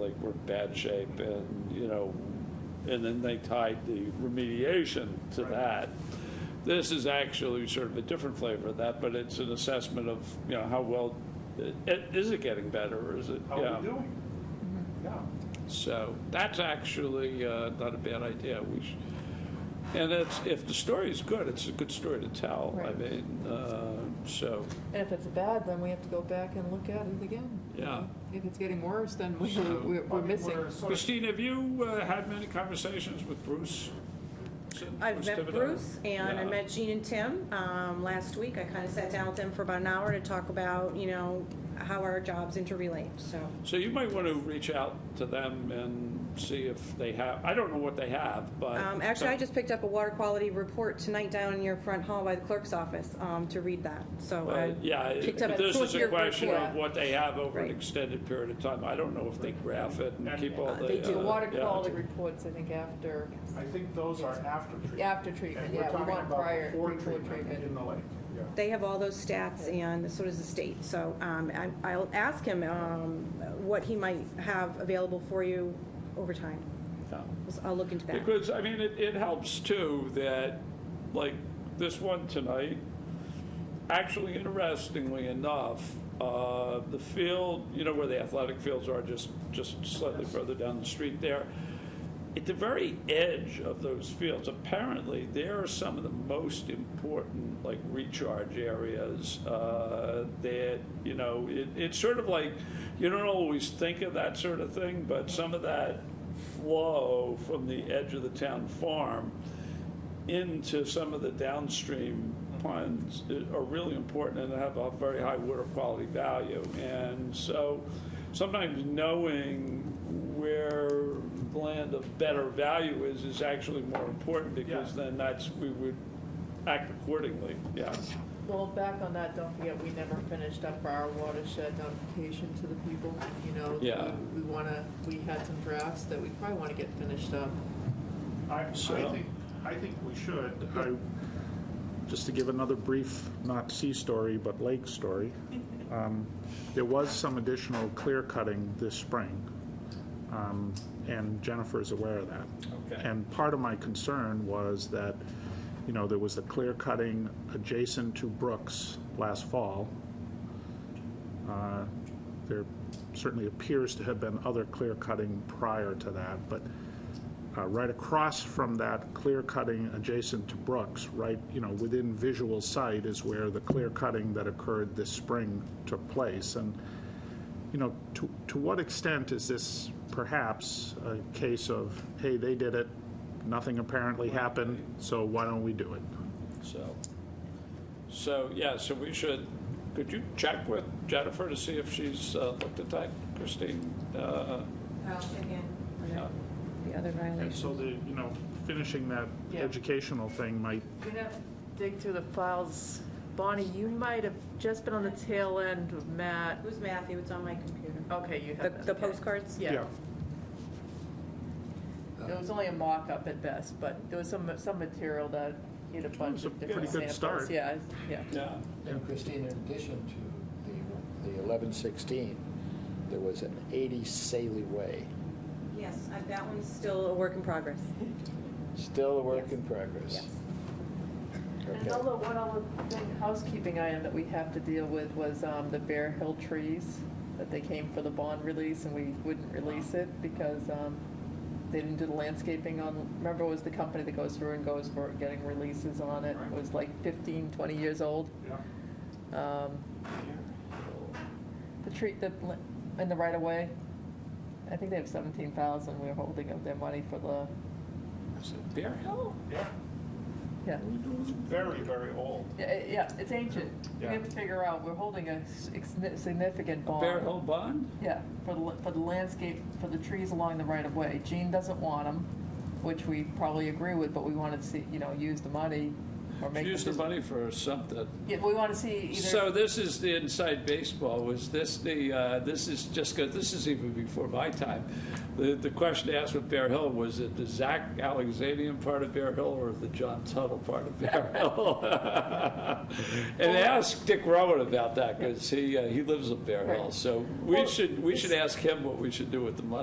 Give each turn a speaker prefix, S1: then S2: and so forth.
S1: like we're in bad shape and, you know, and then they tied the remediation to that. This is actually sort of a different flavor of that, but it's an assessment of, you know, how well, i- i- is it getting better or is it?
S2: How
S1: yeah.
S2: are we doing?
S3: Mm-hmm.
S2: Yeah.
S1: So that's actually uh, not a bad idea. We sh and it's, if the story is good, it's a good story to tell. I
S3: Right.
S1: mean, uh, so,
S3: And if it's bad, then we have to go back and look at it again.
S1: yeah.
S3: If it's getting worse, then we-
S1: So-
S3: we're
S2: I
S3: we're
S2: mean,
S3: missing.
S2: we're sort of-
S1: Christine, have you uh, had many conversations with Bruce? since-
S4: I've
S1: Bruce
S4: met
S1: Thibodeau?
S4: Bruce and I
S1: Yeah.
S4: met Gene and Tim um, last week. I kind of sat down with them for about an hour to talk about, you know, how our jobs interrelate, so.
S1: So you might want to reach out to them and see if they have, I don't know what they have, but.
S4: Um, Actually, I just picked up a water quality report tonight down in your front hall by the clerk's office um, to read that, so um, I
S1: But, Yeah,
S4: picked up.
S1: this is a
S4: your
S1: question of
S4: report.
S1: what they have over an
S4: Right.
S1: extended period of time. I don't know if they graph it and keep all
S3: Uh,
S1: the.
S3: They do
S1: uh,
S3: water
S1: yeah.
S3: quality reports, I think, after,
S2: I think those are after treatment.
S3: after treatment,
S2: And we're
S3: yeah, we
S2: talking
S3: want
S2: about
S3: prior,
S2: before
S3: before
S2: treatment
S3: treatment.
S2: in the lake, yeah.
S4: They have all those stats, and so does the state. So um, I- I'll ask him um, what he might have available for you over time.
S1: Yeah.
S4: I'll look into that.
S1: Because, I mean, it, it helps too that, like, this one tonight, actually interestingly enough, uh, the field, you know, where the athletic fields are, just, just slightly further down the street there, at the very edge of those fields, apparently, there are some of the most important, like, recharge areas uh, that, you know, it, it's sort of like, you don't always think of that sort of thing, but some of that flow from the edge of the town farm into some of the downstream ponds i- are really important and have a very high water quality value. And so sometimes knowing where land of better value is, is actually more important because
S2: Yeah.
S1: then that's, we would act accordingly, yeah.
S3: Well, back on that, don't forget, we never finished up our watershed notification to the people, you know.
S1: Yeah.
S3: we- We wanna, we had some drafts that we probably wanna get finished up.
S2: I, I
S1: So-
S2: think, I think we should. I, just to give another brief, not sea story, but lake story, um, there was some additional clear cutting this spring. um, And Jennifer is aware of that.
S1: Okay.
S2: And part of my concern was that, you know, there was the clear cutting adjacent to Brooks last fall. Uh, There certainly appears to have been other clear cutting prior to that, but uh, right across from that clear cutting adjacent to Brooks, right, you know, within visual sight is where the clear cutting that occurred this spring took place. And, you know, to, to what extent is this perhaps a case of, hey, they did it, nothing apparently happened, so why don't we do it?
S1: So, so, yeah, so we should, could you check with Jennifer to see if she's uh, looked at that, Christine? Uh,
S4: I'll check in
S1: yeah.
S4: on the other
S2: And so
S4: violation.
S2: the, you know, finishing that
S3: Yeah.
S2: educational thing might,
S3: We have to dig through the files. Bonnie, you might have just been on the tail end of Matt.
S4: It was Matthew, it's on my computer.
S3: Okay, you
S4: The
S3: have that.
S4: the
S3: okay.
S4: postcards?
S3: Yeah. It was only a mock-up at best, but there was some, some material that had a bunch
S2: was a
S3: of different
S2: pretty good
S3: samples.
S2: start.
S3: Yeah, it's- yeah.
S1: Yeah,
S5: And Christine, in addition to the, the eleven sixteen, there was an eighty Saley Way,
S4: Yes, I- that one's still a work in progress.
S5: still a work in progress.
S4: Yes.
S3: And
S5: Okay.
S3: although one other thing, housekeeping item that we have to deal with was um, the Bear Hill trees, that they came for the bond release and we wouldn't release it because um, they didn't do the landscaping on, remember it was the company that goes through and goes for getting releases on it? It was like 15, 20 years old. Um, The tree, the, pl- in the right of way, I think they have 17,000 we're holding of their money for the,
S1: Bear Hill?
S2: yeah,
S3: yeah.
S2: very, very old.
S3: Yeah, it- Yeah, it's ancient. We
S2: Yeah.
S3: have to figure out, we're holding a s- ex- significant bond.
S1: Bear Hill Bond?
S3: Yeah, for the, for the landscape, for the trees along the right of way. Gene doesn't want them, which we probably agree with, but we wanted to see, you know, use the money or make.
S1: Use the money for something.
S3: Yeah, we want to see either.
S1: So this is the inside baseball, was this the, uh, this is just, 'cause this is even before my time. The, the question asked with Bear Hill, was it the Zach Alexandrian part of Bear Hill or the John Tuttle part of Bear Hill? And ask Dick Rowan about that, because he, uh, he lives in Bear Hill,
S3: Right.
S1: so we
S3: Well,
S1: should, we should
S3: it's-
S1: ask him what we should do with the money.